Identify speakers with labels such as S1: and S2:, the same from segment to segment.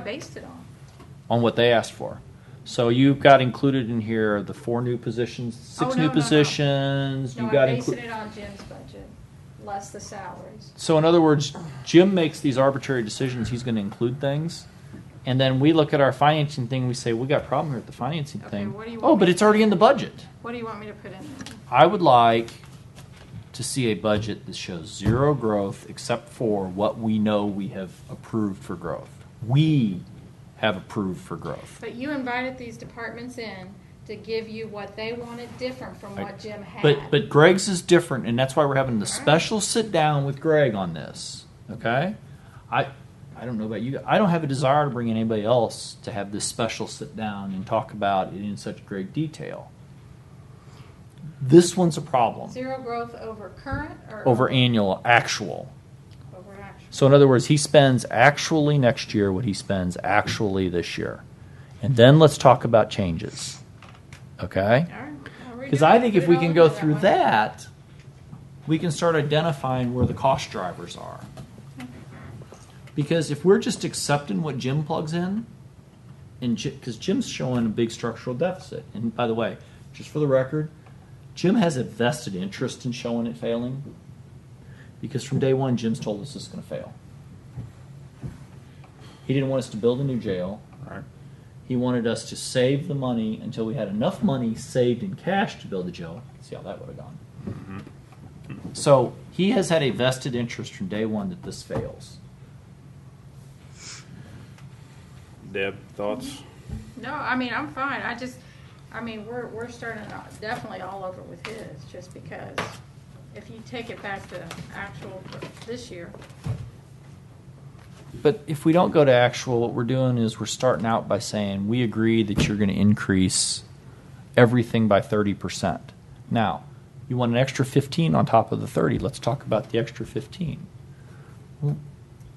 S1: based it on.
S2: on what they asked for. So you've got included in here the four new positions, six
S1: Oh, no,
S2: new
S1: no, no.
S2: positions.
S1: No,
S2: You got
S1: I'm basing
S2: included.
S1: it on Jim's budget, less the salaries.
S2: So in other words, Jim makes these arbitrary decisions. He's going to include things, and then we look at our financing thing. We say we got a problem here with the financing
S1: Okay,
S2: thing.
S1: what do you
S2: oh,
S1: want
S2: but
S1: me
S2: it's already in the budget.
S1: What do you want me to put in there?
S2: I would like to see a budget that shows zero growth except for what we know we have approved for growth. We have approved for growth.
S1: But you invited these departments in to give you what they wanted different from
S2: I-
S1: what Jim had.
S2: But but Greg's is different, and that's why we're having the special sit down with Greg on this. Okay, I I don't know about you. I don't have a desire to bring anybody else to have this special sit down and talk about it in such great detail. This one's a problem
S1: Zero growth over current or?
S2: over annual actual.
S1: Over actual.
S2: So in other words, he spends actually next year what he spends actually this year. And then let's talk about changes. Okay?
S1: All right, I'll redo
S2: Because
S1: it.
S2: I think
S1: Put it
S2: if we
S1: all
S2: can
S1: in
S2: go
S1: there
S2: through
S1: way.
S2: that, we can start identifying where the cost drivers are. Because if we're just accepting what Jim plugs in, and because Jim's showing a big structural deficit, and by the way, just for the record, Jim has a vested interest in showing it failing. Because from day one, Jim's told us it's going to fail. He didn't want us to build a new jail.
S3: Right.
S2: He wanted us to save the money until we had enough money saved in cash to build the jail. See how that would have gone. So he has had a vested interest from day one that this fails.
S3: Deb, thoughts?
S1: No, I mean, I'm fine. I just, I mean, we're, we're starting out definitely all over with his, just because if you take it back to actual this year,
S2: But if we don't go to actual, what we're doing is we're starting out by saying we agree that you're going to increase everything by 30%. Now, you want an extra 15 on top of the 30. Let's talk about the extra 15. Well,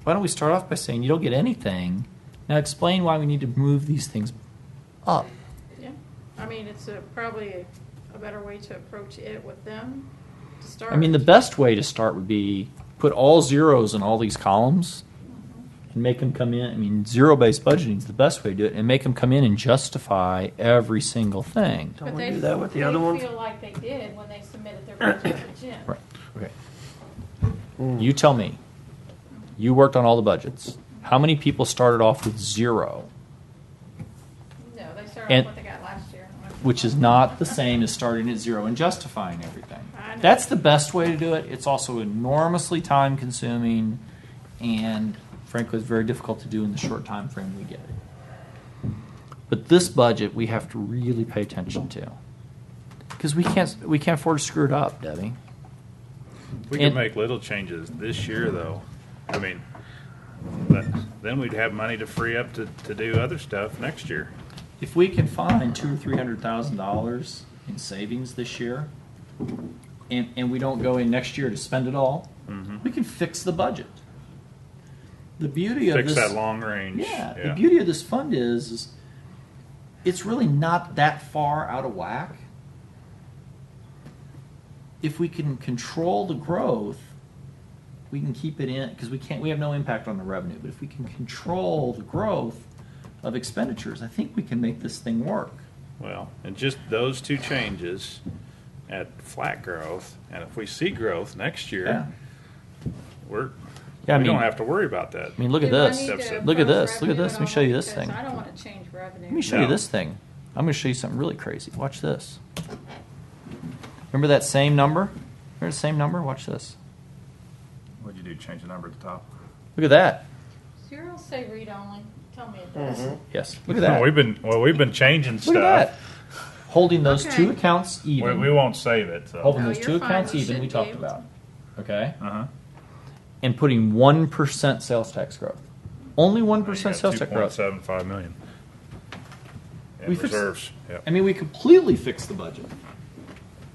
S2: why don't we start off by saying you don't get anything? Now explain why we need to move these things up.
S1: yeah. I mean, it's a, probably a better way to approach it with them to start.
S2: I mean, the best way to start would be put all zeros in all these columns and make them come in. I mean, zero based budgeting is the best way to do it and make them come in and justify every single thing.
S1: But
S3: Don't we
S1: they-
S3: do that with the other ones?
S1: They feel like they did when they submitted their budget to Jim.
S2: Right. Okay. You tell me. You worked on all the budgets. How many people started off with zero,
S1: No, they started
S2: And-
S1: with what they got last year.
S2: which is not the same as starting at zero and justifying everything?
S1: I know.
S2: That's the best way to do it. It's also enormously time consuming and frankly it's very difficult to do in the short time frame we get. But this budget we have to really pay attention to. Because we can't we can't afford to screw it up, Debbie.
S3: We could
S2: And-
S3: make little changes this year, though. I mean, but then we'd have money to free up to, to do other stuff next year.
S2: If we can find two or three hundred thousand dollars in savings this year, and, and we don't go in next year to spend it all, we can fix the budget. The beauty of
S3: Fix
S2: this,
S3: that long range.
S2: yeah, the beauty of this fund is, is it's really not that far out of whack. If we can control the growth, we can keep it in because we can't. We have no impact on the revenue, but if we can control the growth of expenditures, I think we can make this thing work.
S3: Well, and just those two changes at flat growth, and if we see growth next
S2: Yeah.
S3: year, we're,
S2: Yeah, I
S3: we
S2: mean-
S3: don't have to worry about that.
S2: I mean, look at
S1: Do I
S2: this.
S1: need to
S2: Look at
S1: approve
S2: this. Look at
S1: revenue
S2: this. Let me
S1: at
S2: show
S1: all?
S2: you this
S1: Because
S2: thing.
S1: I don't want to change revenue.
S2: Let me show you
S3: No.
S2: this thing. I'm going to show you something really crazy. Watch this. Remember that same number? Remember the same number? Watch this.
S3: What'd you do, change the number at the top?
S2: Look at that.
S1: Zero say read only. Tell me it does.
S2: Yes. Look at that.
S3: We've been, well, we've been changing
S2: Look at that.
S3: stuff.
S2: Holding those
S1: Okay.
S2: two accounts
S3: We,
S2: even.
S3: we won't save it, so.
S2: holding
S1: No,
S2: those
S1: you're
S2: two
S1: fine.
S2: accounts
S1: You
S2: even. We
S1: should be
S2: talked
S1: able to.
S2: about. Okay.
S3: Uh-huh.
S2: And putting one percent sales tax growth. Only one percent sales tax growth.
S3: 2.75 million. In
S2: We fixed-
S3: reserves, yeah.
S2: I mean, we completely fixed the budget,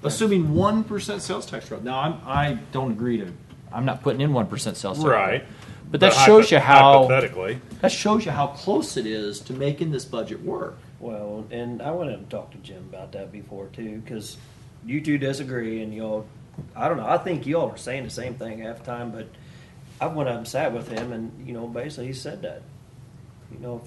S2: assuming one percent sales tax growth. Now, I'm I don't agree to. I'm not putting in one percent sales tax. growth.
S3: Right.
S2: But that shows
S3: hypo-
S2: you how
S3: Hypothetically,
S2: that shows you how close it is to making this budget work.
S4: Well, and I went and talked to Jim about that before too, because you two disagree, and y'all, I don't know. I think y'all are saying the same thing half the time, but I went up and sat with him, and you know, basically he said that you know, if